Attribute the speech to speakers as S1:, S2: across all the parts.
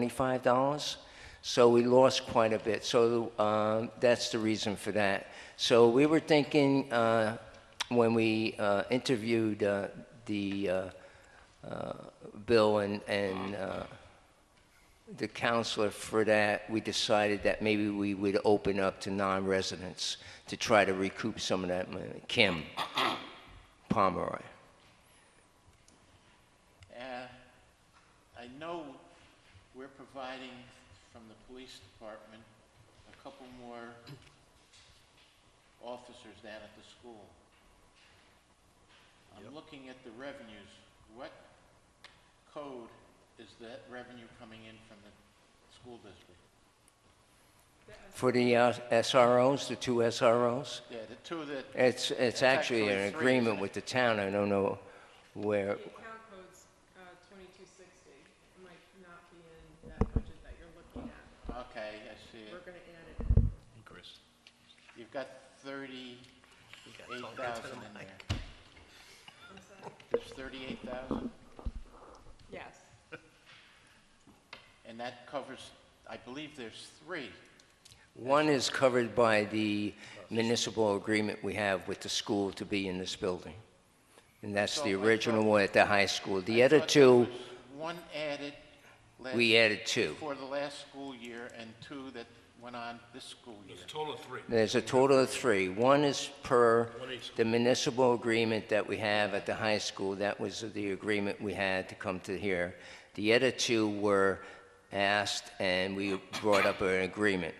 S1: twenty-five dollars. So we lost quite a bit. So um, that's the reason for that. So we were thinking uh, when we uh, interviewed uh, the uh, uh, Bill and and uh, the counselor for that, we decided that maybe we would open up to non-residents to try to recoup some of that money. Kim Pomeroy.
S2: Uh, I know we're providing from the police department a couple more officers down at the school. I'm looking at the revenues. What code is that revenue coming in from the school district?
S1: For the uh, SROs, the two SROs,
S2: Yeah, the two that,
S1: it's, it's
S2: It's
S1: actually
S2: actually
S1: an
S2: three,
S1: agreement
S2: isn't it?
S1: with the town, I don't know where,
S3: The account code's uh, twenty-two sixty, It might not be in that budget that you're looking at.
S2: okay, I see it.
S3: We're gonna add it.
S2: You've got thirty-eight thousand in there.
S3: I'm sorry.
S2: There's thirty-eight thousand,
S3: Yes,
S2: and that covers, I believe there's three.
S1: one is covered by the municipal agreement we have with the school to be in this building. And that's the
S2: So I
S1: original
S2: thought-
S1: one at the high school. The
S2: I
S1: other
S2: thought there
S1: two,
S2: was One added last.
S1: we added two.
S2: For the last school year and two that went on this school year.
S4: Total of three.
S1: There's a total of three. One is per the municipal agreement that we have at the high school. That was the agreement we had to come to here. The other two were asked, and we brought up an agreement.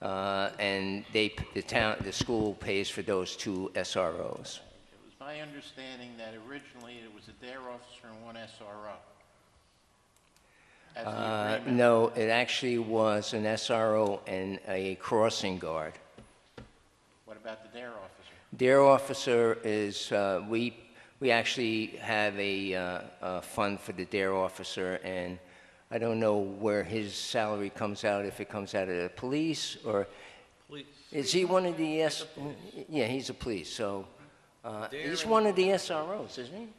S1: Uh, And they, the town, the school pays for those two SROs.
S2: It was my understanding that originally it was a dare officer and one SRO. As the
S1: Uh,
S2: agreement-
S1: No, it actually was an SRO and a crossing guard.
S2: What about the dare officer?
S1: Their officer is, uh, we, we actually have a, uh, a fund for the dare officer, and I don't know where his salary comes out, if it comes out of the police, or, is he one of the S, yeah, he's a police, so, uh, he's
S5: Dare
S1: one of the SROs, isn't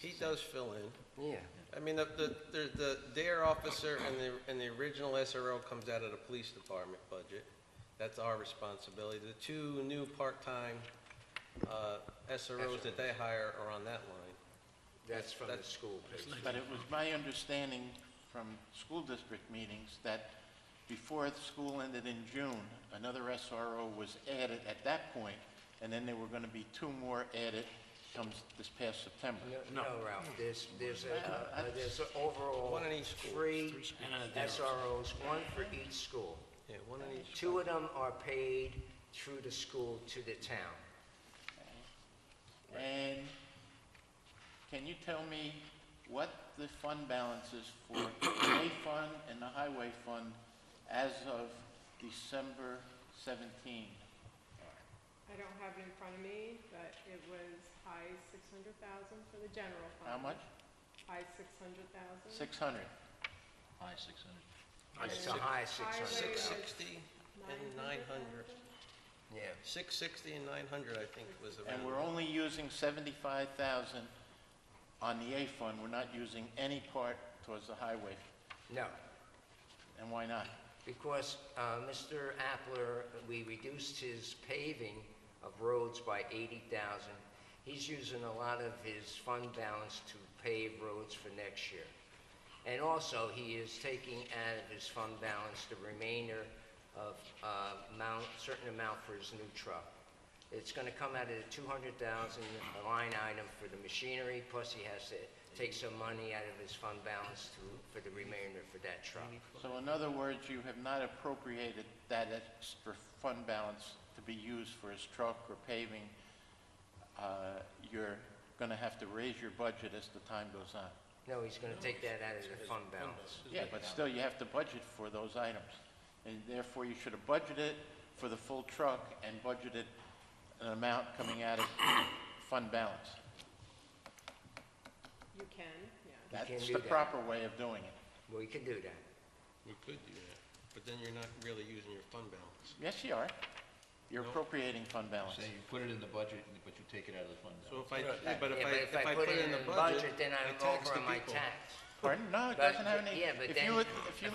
S5: He does fill in.
S1: he? Yeah.
S5: I mean, the, the, the- the DARE officer and the, and the original SRO comes out of the police department budget. That's our responsibility. The two new part-time, uh, SROs that they hire are on that line.
S1: That's from
S5: the
S1: school.
S2: But it was my understanding from school district meetings that before the school ended in June, another SRO was added at that point, and then there were going to be two more added comes this past September.
S6: No, Ralph, there's, there's, a- uh, uh, there's a overall
S5: One in each school.
S6: three SROs, one for each school.
S5: Yeah, one in each.
S6: Two of them are paid through the school to the town.
S2: And can you tell me what the fund balance is for the A fund and the highway fund as of December 17?
S3: I don't have it in front of me, but it was high six hundred thousand for the general fund.
S2: How much?
S3: High six hundred thousand.
S2: 600.
S6: It's a high
S3: Highway
S6: 600.
S5: Six
S3: was
S5: sixty and nine hundred.
S6: Yeah,
S5: Six sixty and nine hundred, I think, was around.
S2: And we're only using 75,000 on the A fund. We're not using any part towards the highway.
S6: no,
S2: And why not?
S6: because uh, Mr. Appler, we reduced his paving of roads by 80,000. He's using a lot of his fund balance to pave roads for next year. And also, he is taking out of his fund balance the remainder of uh, amount, certain amount for his new truck. It's gonna come out of the two hundred thousand line item for the machinery, plus he has to take some money out of his fund balance to, for the remainder for that truck.
S2: So in other words, you have not appropriated that extra fund balance to be used for his truck or paving. Uh, You're going to have to raise your budget as the time goes on.
S6: No, he's gonna take that out of the fund balance.
S2: Yeah, but still, you have to budget for those items. And therefore, you should have budgeted for the full truck and budgeted an amount coming out of fund balance.
S3: You can, yeah.
S6: You can
S2: That's
S6: do
S2: the
S6: that.
S2: proper way of doing it.
S6: Well, he can do that.
S5: We could do that, but then you're not really using your fund balance.
S2: Yes, you are. You're appropriating fund balance.
S7: Say you put it in the budget, but you take it out of the fund
S5: So
S7: balance.
S5: if I, but if
S6: Yeah,
S5: I, if I put it in the budget.
S6: Then I'm
S5: tax
S6: over
S5: the
S6: on my
S5: people.
S6: tax.
S1: Pardon? No, it
S2: But-
S1: doesn't have any.
S2: yeah, but
S1: if
S2: then-
S1: you would- If you